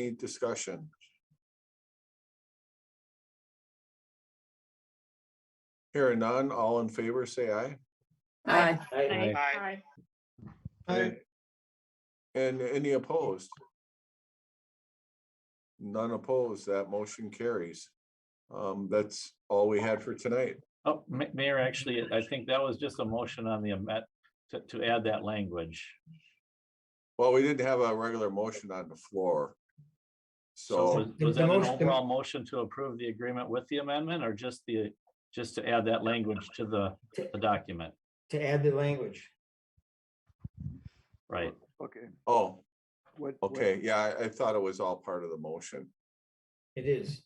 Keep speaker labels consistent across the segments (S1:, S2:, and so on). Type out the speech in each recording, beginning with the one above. S1: Any discussion? Here and none, all in favor, say aye.
S2: Aye.
S3: Aye.
S4: Aye.
S1: Aye. And any opposed? None opposed, that motion carries. Um, that's all we had for tonight.
S3: Oh, Ma- Mayor, actually, I think that was just a motion on the amendment to, to add that language.
S1: Well, we didn't have a regular motion on the floor.
S3: So
S1: So
S3: was- was
S5: The
S3: that an
S5: motion-
S3: overall motion to approve the agreement with the amendment or just the, just to add that language to the, the document?
S5: to add the language.
S3: Right,
S6: Okay,
S1: Oh,
S6: what? what-
S1: okay, yeah, I, I thought it was all part of the motion.
S5: It is.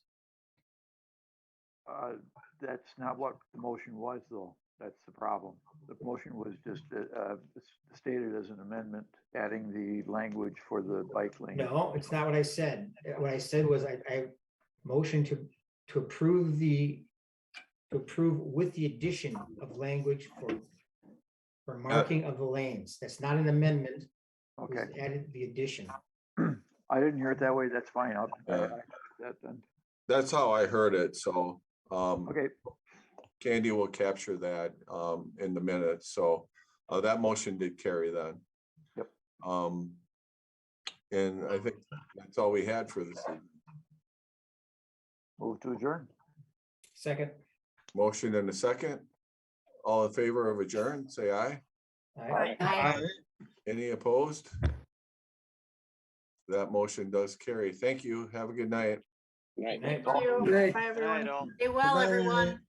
S6: uh, That's not what the motion was, though. That's the problem. The motion was just uh, uh, s- stated as an amendment, adding the language for the bike lane.
S5: No, it's not what I said. What I said was I, I motioned to, to approve the, to approve with the addition of language for, for marking of the lanes. That's not an amendment. it was
S6: Okay,
S5: Added the addition.
S6: I didn't hear it that way. That's fine. I'll, I-
S1: Yeah.
S6: I- that then.
S1: That's how I heard it, so, um,
S6: Okay,
S1: Candy will capture that um in the minutes, so uh that motion did carry then.
S6: Yep.
S1: Um. And I think that's all we had for this. evening.
S6: move to adjourn.
S5: Second.
S1: Motion and a second. All in favor of adjourn, say aye.
S5: All right.
S4: Aye.
S1: Any opposed? That motion does carry. Thank you. Have a good night.
S5: All right.
S4: Thank you. Bye, everyone. Stay well, everyone.